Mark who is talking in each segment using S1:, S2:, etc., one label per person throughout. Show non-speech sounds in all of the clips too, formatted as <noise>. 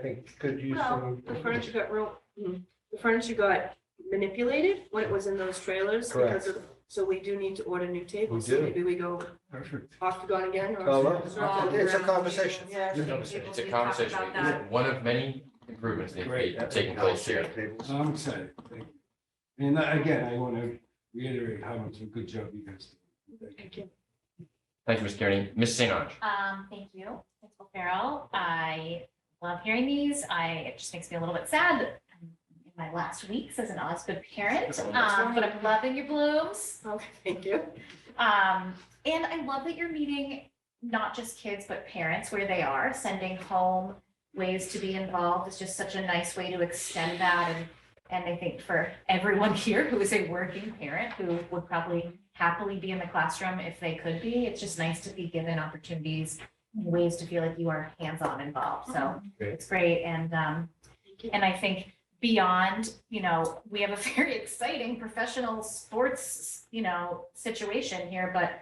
S1: I think could use
S2: Well,
S1: some.
S2: the furniture got real, mm, the furniture got manipulated when it was in those trailers because of, so we do need to order new tables.
S1: We do.
S2: Maybe we go
S1: Perfect.
S2: off to gone again or.
S1: Oh, well,
S2: Oh,
S1: It's a conversation.
S3: Yeah.
S4: It's a conversation. It's a conversation. It's one of many improvements that are taking place here.
S5: So I'm excited. Thank you. And I- again, I want to reiterate how much a good job you guys did. Thank you.
S2: Thank you.
S4: Thank you, Ms. Kearney. Ms. St. Ange.
S6: Um, thank you, Principal Farrell. I love hearing these. I, it just makes me a little bit sad that I'm in my last weeks as an Osgood parent, um, but I'm loving your blooms.
S2: <laughs> Okay, thank you.
S6: Um, and I love that you're meeting not just kids, but parents where they are, sending home ways to be involved is just such a nice way to extend that and and I think for everyone <laughs> here who is a working parent who would probably happily be in the classroom if they could be, it's just nice to be given opportunities, and ways to feel like you are hands-on involved. So
S1: Great.
S6: it's great. And um, and I think beyond, you know, we have a <laughs> very exciting professional sports, you know, situation here, but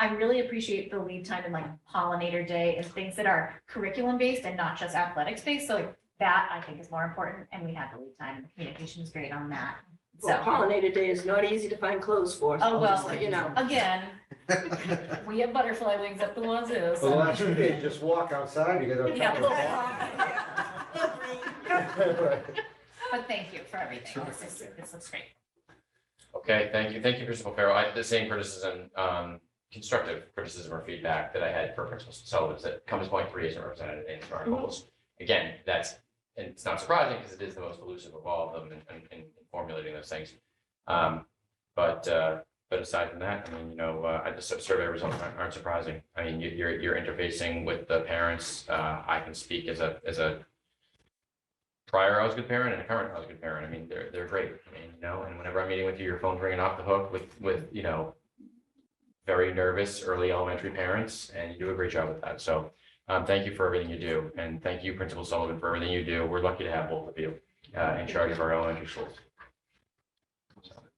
S6: I really appreciate the lead time and like pollinator day and things that are curriculum based and not just athletics based. So like that I think is more important and we had the lead time. The Communication was great on that.
S2: Well,
S6: So
S2: pollinator day is not easy to find clothes for. so
S6: Oh,
S2: just
S6: well.
S2: let You know,
S6: again, we have butterfly wings up the wazoo.
S1: <laughs> Well,
S6: so-
S1: last week, just walk outside, you get a
S6: Yeah,
S1: <laughs>
S6: <laughs>
S1: couple of-
S6: But thank you for everything.
S5: Sure.
S6: This is, this looks great.
S4: Okay, thank you. Thank you, Principal Farrell. I had the same criticism, um, constructive criticism or feedback that I had for Principal Sullivan's that Compass Point Three isn't represented in our goals. Again, that's, and it's not surprising because it is the most elusive of all of them in, in, in formulating those things. Um, but, uh, but aside from that, I mean, you know, uh, I- the sur- survey results aren't aren't surprising. I mean, you- you're, you're interfacing with the parents. Uh, I can speak as a, as a prior I was a good parent and a current I was a good parent. I mean, they're, they're great. I mean, you know, and whenever I'm meeting with you, your phone's ringing off the hook with, with, you know, very nervous early elementary parents and you do a great job with that. So, um, thank you for everything you do. And thank you, Principal Sullivan, for everything you do. We're lucky to have both of you, uh, in charge of our elementary schools.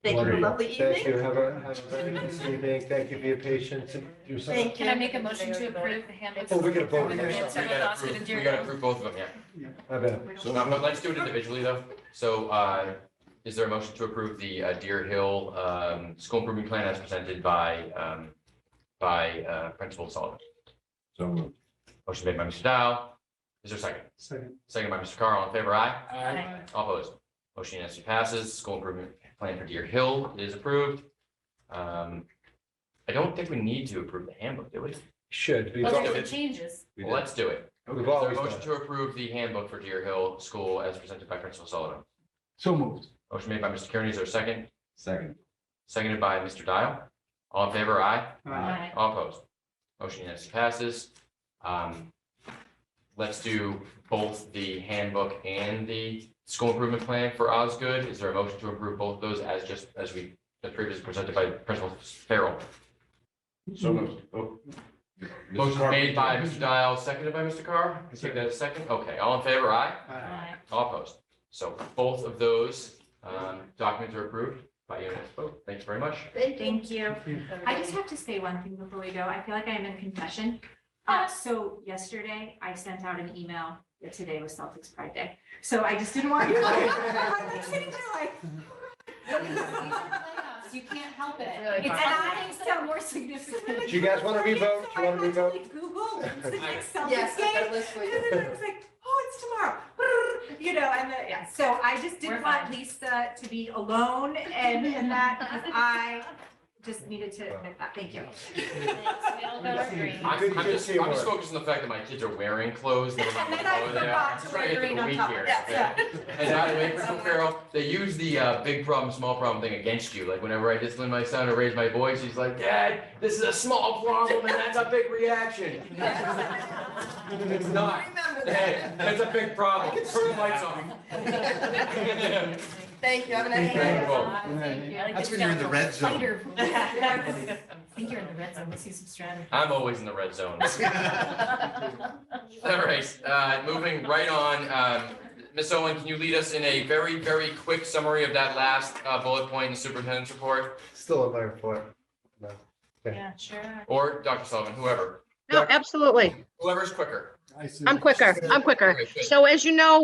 S2: thank you for a lovely
S1: Thank
S2: evening.
S1: you, have a, have a very nice evening, thank you for your patience and do something.
S2: Thank you.
S3: Can I make a motion to approve the handbook?
S1: Oh, we gotta vote
S3: With
S1: on
S3: the
S1: this.
S3: handbook
S4: We
S3: with
S4: gotta
S3: Oscar
S4: approve-
S3: and
S4: we
S3: Jerry.
S4: gotta approve both of them, yeah.
S1: I bet.
S6: <laughs>
S4: So um, but let's do it individually though. So uh, is there a motion to approve the uh, Deer Hill um, School Improvement Plan as presented by um, by uh, Principal Sullivan? So Motion made by Mr. Dow. Is there a second?
S5: Second.
S4: Second by Mr. Carl. In favor, aye?
S5: Aye.
S4: All opposed? Motion unanimously passes. School Improvement Plan for Deer Hill is approved. Um, I don't think we need to approve the handbook, do we?
S1: Should, we've,
S6: But
S4: Okay.
S1: al-
S6: there's some changes.
S1: We
S4: Well, Let's do it. Is
S1: we've
S4: there a
S1: always done.
S4: motion to approve the handbook for Deer Hill School as presented by Principal Sullivan?
S5: So moved.
S4: Motion made by Mr. Kearney, is there a second? Seconded by Mr. Dial. All in favor, aye.
S6: Aye.
S4: All opposed. Motion unanimously passes. Um, Let's do both the handbook and the school improvement plan for Osgood. Is there a motion to approve both of those as just, as we, as previously presented by Principal Farrell?
S7: So moved. Oh.
S4: Motion made by Mr. Dial, seconded by Mr. Carr. Can you Take that as second. Okay, all in favor, aye.
S6: Aye.
S4: All opposed. So both of those um, documents are approved by unanimous vote. Thanks very much.
S6: Thank you.
S3: Aye.
S8: I just have to say one thing before we go. I feel like I am in confession. Uh, so yesterday I sent out an email that today was Celtics Pride Day. So I just didn't
S1: <laughs>
S8: want you. I'm like sitting there like.
S6: You can't help it.
S3: really
S6: It's
S8: And
S3: fun.
S8: I
S6: happening
S8: sound more
S6: <laughs>
S8: significant.
S1: Do you guys wanna revote? Do you wanna
S8: So I
S1: revote? <laughs>
S8: actually Googled, when's the next
S3: Yes,
S8: Celtics
S3: I
S8: game?
S3: got a list for you.
S8: And then I was like, oh, it's tomorrow. You know, and then, yeah, so I just
S6: We're
S8: didn't want
S6: fine.
S8: Lisa to be alone and, and that, because I just needed to admit that. Thank you.
S6: We all got our dreams.
S4: I'm
S1: Good-
S4: I'm
S1: good
S4: just, I'm just
S1: teamwork.
S4: focused on the fact that my kids are wearing clothes. never
S8: <laughs>
S4: mind
S8: And then
S4: the
S8: I
S4: color they are.
S8: forgot
S4: I'm
S8: to
S4: trying
S8: wear
S4: get through
S8: green
S4: the
S8: on
S4: week
S8: top of
S4: here,
S8: that,
S4: okay?
S8: <laughs> yeah.
S4: And by the way, Principal Farrell, they use the uh, big problem, small problem thing against you. Like whenever I discipline my son or raise my voice, he's like, Dad, this is a small problem and that's a big reaction. It's not. Hey, <laughs> That's a big problem. Turn the lights on.
S3: Thank you. Have a nice
S4: Thank
S3: day.
S4: you all.
S6: Thank you. I like
S7: That's
S6: this
S7: when you're in
S6: down
S7: the red
S6: low.
S7: zone.
S6: Fighter. <laughs> I think you're in the red zone. Let's see some
S4: <laughs>
S6: strategy. <laughs>
S4: I'm always in the red zone. All right, uh, moving right on, um, Ms. Owen, can you lead us in a very, very quick summary of that last uh, bullet point in the superintendent's report?
S1: Still in my report.
S6: Yeah, sure.
S4: Or Dr. Sullivan, whoever,
S9: No, absolutely.
S4: whoever's quicker.
S5: Aye.
S10: I said-
S5: I'm quicker, I'm quicker. So as you know,